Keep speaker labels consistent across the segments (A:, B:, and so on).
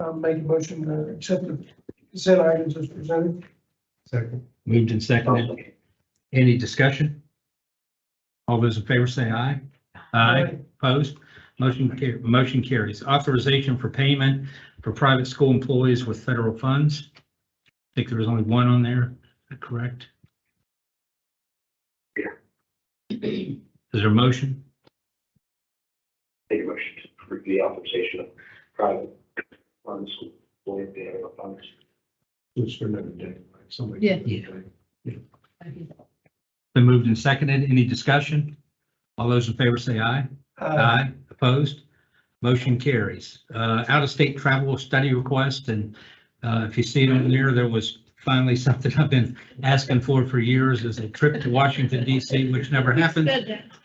A: I'll make a motion to accept the consent items as presented.
B: Second.
C: Moved and seconded. Any discussion? All those in favor say aye. Opposed? Motion car- motion carries. Authorization for payment for private school employees with federal funds. I think there was only one on there, is that correct? Is there a motion?
D: Make a motion to approve the authorization of private funds, employee payroll funds.
B: Which for another day. like somebody-
E: Yeah.
C: Been moved and seconded. Any discussion? All those in favor say aye. Aye. Opposed? Motion carries. Uh, out-of-state travel study request, and, uh, if you see it on there, there was finally something I've been asking for for years, is a trip to Washington DC, which never happened.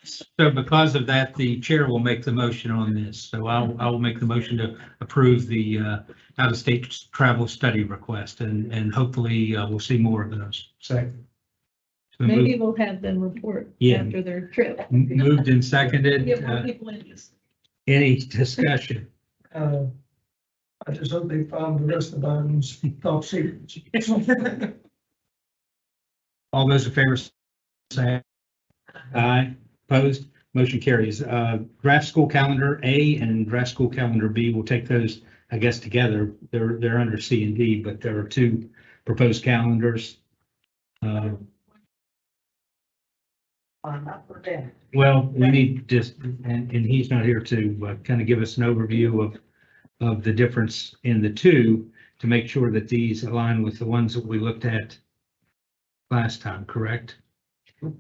C: So because of that, the chair will make the motion on this. So I'll, I will make the motion to approve the, uh, out-of-state travel study request, and, and hopefully, uh, we'll see more of those.
B: Second.
C: It's been moved-
E: Maybe we'll have them report
C: Yeah.
E: after their trip.
C: Moved and
E: Get
C: seconded.
E: more
C: Uh,
E: people interested.
C: Any discussion?
A: Uh, I just hope they found the rest of the items top secret.
C: All those in favor say aye. aye. Opposed? Motion carries. Uh, Draft school calendar A and draft school calendar B, we'll take those, I guess, together. They're, they're under C and D, but there are two proposed calendars. Uh, Well, we need just, and, and he's not here to uh, kind of give us an overview of, of the difference in the two to make sure that these align with the ones that we looked at last time, correct?
F: From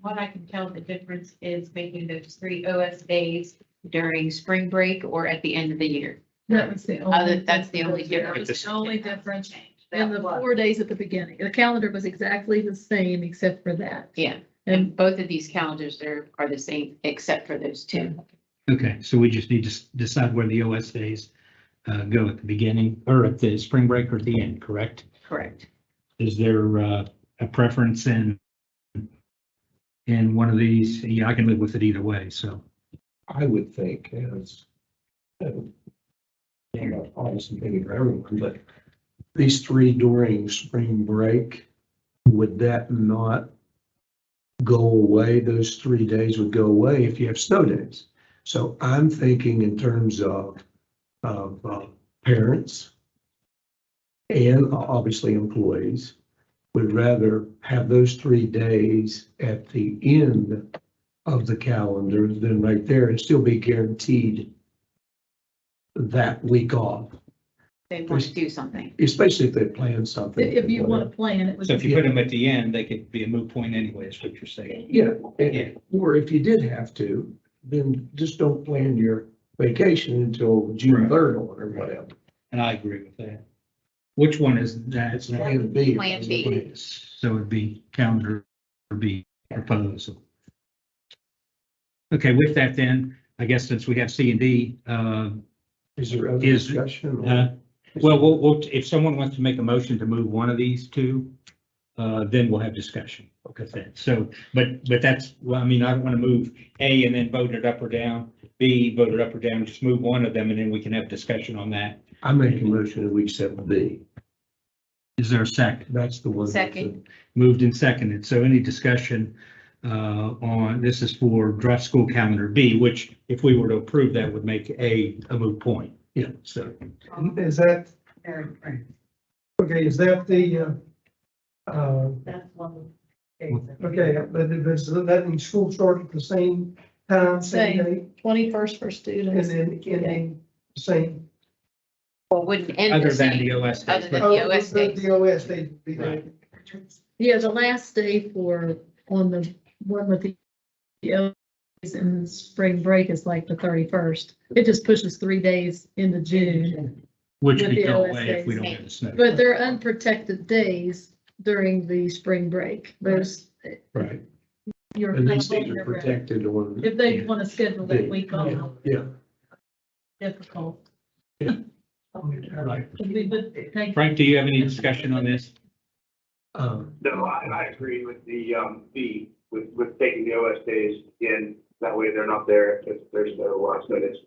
F: what I can tell, the difference is making those three OS days during spring break or at the end of the year.
E: That was the
F: Other,
E: only.
F: Oh, that's the only
E: That
F: difference.
E: was the only difference.
F: That
E: And the
F: was-
E: four days at the beginning, the calendar was exactly the same except for that.
F: Yeah,
E: And
F: and both of these calendars are, are the same except for those two.
C: Okay, so we just need to s- decide where the OS days uh, go at the beginning or at the spring break or at the end, correct?
F: Correct.
C: Is there uh, a preference in in one of these? Yeah, I can live with it either way, so.
B: I would think as. um, I'm not obviously thinking for everyone, but these three during spring break, would that not go away? Those three days would go away if you have snow days. So I'm thinking in terms of, of uh, parents and obviously employees would rather have those three days at the end of the calendar, then right there, and still be guaranteed that week off,
F: They want to do something.
B: especially if they plan something.
E: if you want to plan, it was.
C: them at the end, they could be a moot point anyway, is what you're saying.
B: Yeah,
C: Yeah.
B: and- or if you did have to, then just don't plan your vacation until June
C: Right.
B: third or whatever.
C: And I agree with that. Which one is that?
B: It's plan B.
F: Plan B.
C: So it'd be calendar B proposal. Okay, with that then, I guess since we have C and D, uh,
B: Is there other
C: Is-
B: discussion?
C: uh, well, we'll, we'll- if someone wants to make a motion to move one of these two, uh, then we'll have discussion. Okay. So, but, but that's, well, I mean, I don't want to move A and then vote it up or down, B, vote it up or down, just move one of them and then we can have discussion on that.
B: I make a motion that we accept B.
C: Is there a second?
B: That's the one. that's a-
F: Second.
C: Moved and seconded. So any discussion uh, on, this is for draft school calendar B, which if we were to approve, that would make A a moot point. Yeah, so.
A: Is that? Okay, is that the, uh, uh,
E: That's one.
A: okay, but it was- that means school start at the same time, same
E: Same.
A: day,
E: Twenty-first for
A: and
E: students.
A: then ending same.
F: Well, wouldn't end
C: Other
F: the
C: than
F: same.
C: the OS days,
F: Other
C: but
F: than- The OS
A: Oh, the-
F: days.
A: The OS days would be there.
E: Yeah, the last day for, on the, one with the, the O's and spring break is like the thirty-first. It just pushes three days into June,
C: which
E: with
C: could
E: the
C: go
E: OS
C: away if we
E: days.
C: don't have the snow.
E: but they're unprotected days during the spring break. Those,
B: Right.
E: your.
B: And these things are protected on.
E: If they want to schedule that week
B: Yeah,
E: off,
B: Yeah,
E: difficult.
B: right.
E: We would thank-
C: Frank, do you have any discussion on this?
B: Um,
D: No, I, I agree with the, um, B, with, with taking the OS days in, that way they're not there if there's no, uh, notice.